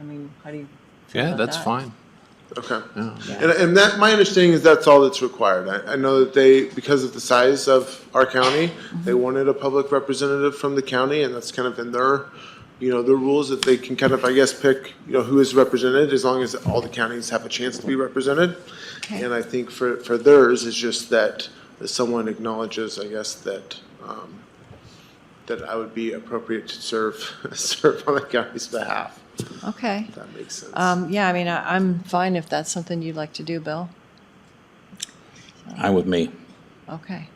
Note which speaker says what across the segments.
Speaker 1: I mean, how do you? feel
Speaker 2: Yeah,
Speaker 1: about
Speaker 2: that's
Speaker 1: that?
Speaker 2: fine.
Speaker 3: Okay.
Speaker 2: Yeah.
Speaker 3: And, and that, my understanding is that's all that's required. I, I know that they, because of the size of our county, they wanted a public representative from the county, and that's kind of in their, you know, their rules that they can kind of, I guess, pick, you know, who is represented, as long as all the counties have a chance to be represented. And I think for, for theirs, is just that someone acknowledges, I guess, that, um, that I would be appropriate to serve, serve on the county's behalf,
Speaker 1: Okay.
Speaker 3: if that makes sense.
Speaker 1: Um, yeah, I mean, I, I'm fine if that's something you'd like to do, Bill.
Speaker 4: I'm with me.
Speaker 1: Okay.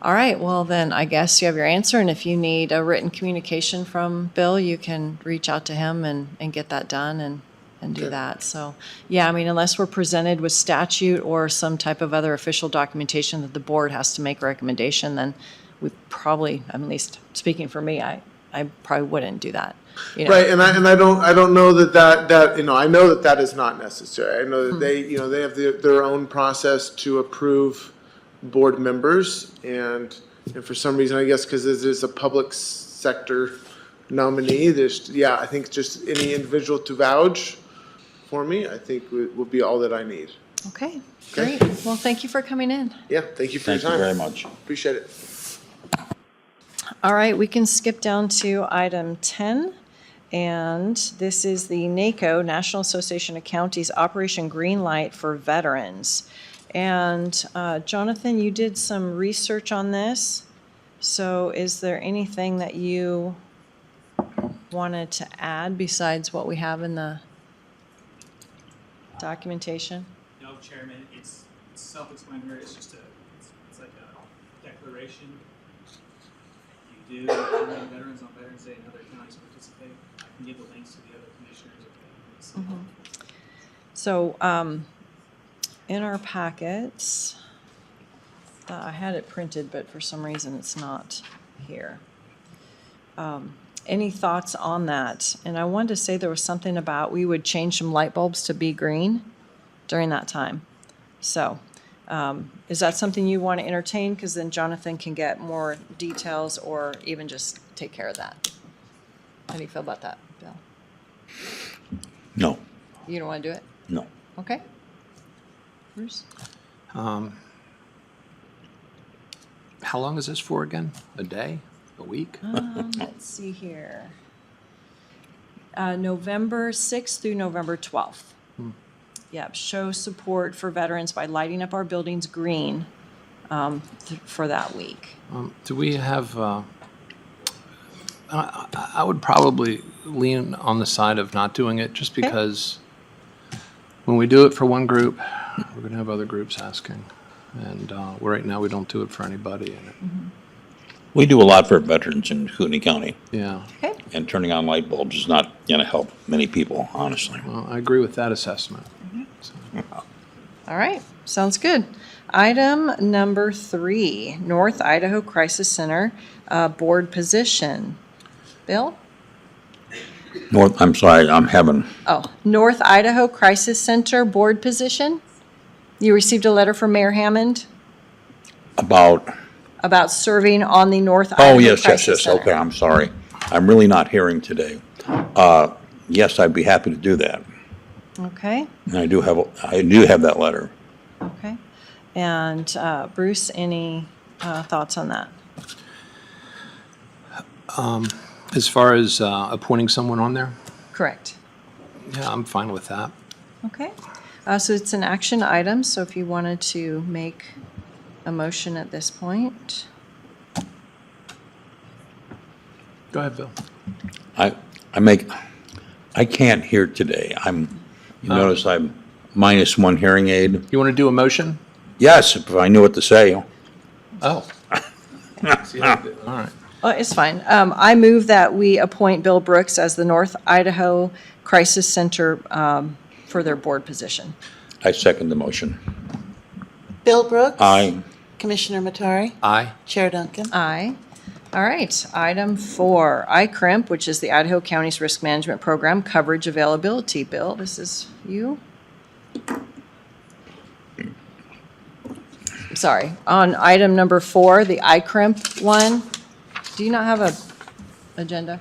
Speaker 1: All right, well then, I guess you have your answer, and if you need a written communication from Bill, you can reach out to him and, and get that done and, and do that. So, yeah, I mean, unless we're presented with statute or some type of other official documentation that the board has to make a recommendation, then we probably, I'm at least speaking for me, I, I probably wouldn't do that. you know.
Speaker 3: Right, and I, and I don't, I don't know that that, that, you know, I know that that is not necessary. I know that they, you know, they have their, their own process to approve board members. And, and for some reason, I guess, because this is a public s- sector nominee, there's, yeah, I think just any individual to vouch for me, I think would, would be all that I need.
Speaker 1: Okay,
Speaker 3: Okay.
Speaker 1: great. Well, thank you for coming in.
Speaker 3: Yeah, thank you for your
Speaker 4: Thank
Speaker 3: time.
Speaker 4: you very much.
Speaker 3: Appreciate it.
Speaker 1: All right, we can skip down to item 10. And this is the NACO, National Association of Counties, Operation Greenlight for Veterans. And uh, Jonathan, you did some research on this. So is there anything that you wanted to add besides what we have in the documentation?
Speaker 5: No, Chairman, it's it's self-explanatory, it's just a, it's- it's like a declaration. You do, honor veterans on Veterans Day and other counties participate. I can give the links to the other commissioners if they need some help.
Speaker 1: So, um, in our packets, uh, I had it printed, but for some reason it's not here. Um, Any thoughts on that? And I wanted to say there was something about we would change some light bulbs to be green during that time. So, um, is that something you want to entertain? Because then Jonathan can get more details or even just take care of that. How do you feel about that, Bill?
Speaker 4: No,
Speaker 1: You don't want to do it?
Speaker 4: no.
Speaker 1: Okay. Bruce?
Speaker 2: How long is this for again? A day? A week?
Speaker 1: Um, let's see here. Uh, November 6th through November 12th. Yep, show support for veterans by lighting up our buildings green um, th- for that week.
Speaker 2: Um, do we have? Uh, I, I- I would probably lean on the side of not doing it, just because when we do it for one group, we're going to have other groups asking, and uh, right now we don't do it for anybody. And it,
Speaker 1: Mm-hmm.
Speaker 4: We do a lot for veterans in Hootney County,
Speaker 2: yeah,
Speaker 1: Okay,
Speaker 4: and turning on light bulbs is not going to help many people, honestly.
Speaker 2: well, I agree with that assessment. So,
Speaker 1: all right, sounds good. Item number three, North Idaho Crisis Center uh, Board Position. Bill?
Speaker 4: North, I'm sorry, I'm having,
Speaker 1: Oh, North Idaho Crisis Center Board Position? You received a letter from Mayor Hammond?
Speaker 4: about,
Speaker 1: about serving on the North Idaho
Speaker 4: oh, yes, yes,
Speaker 1: Crisis uh,
Speaker 4: yes,
Speaker 1: Center.
Speaker 4: okay, I'm sorry. I'm really not hearing today. Uh, Yes, I'd be happy to do that.
Speaker 1: Okay,
Speaker 4: And I do have, I do have that letter.
Speaker 1: okay. And uh, Bruce, any uh, thoughts on that?
Speaker 2: as far as uh, appointing someone on there,
Speaker 1: Correct.
Speaker 2: yeah, I'm fine with that.
Speaker 1: Okay. Uh, So it's an action item, so if you wanted to make a motion at this point.
Speaker 2: Go ahead, Bill.
Speaker 4: I, I make, I can't hear today. I'm, you notice I'm minus one hearing aid.
Speaker 2: You want to do a motion?
Speaker 4: Yes, if I knew what to say.
Speaker 2: Oh. See, I did. All right.
Speaker 1: Oh, it's fine. Um, I move that we appoint Bill Brooks as the North Idaho Crisis Center um, for their board position.
Speaker 4: I second the motion.
Speaker 6: Bill Brooks.
Speaker 4: Aye.
Speaker 6: Commissioner Matari.
Speaker 2: Aye.
Speaker 6: Chair Duncan.
Speaker 1: Aye. All right, item four, ICRIMP, E which is the Idaho County's Risk Management Program Coverage Availability. Bill, this is you? Sorry, on E item number four, the ICRIMP one, do you not have a agenda?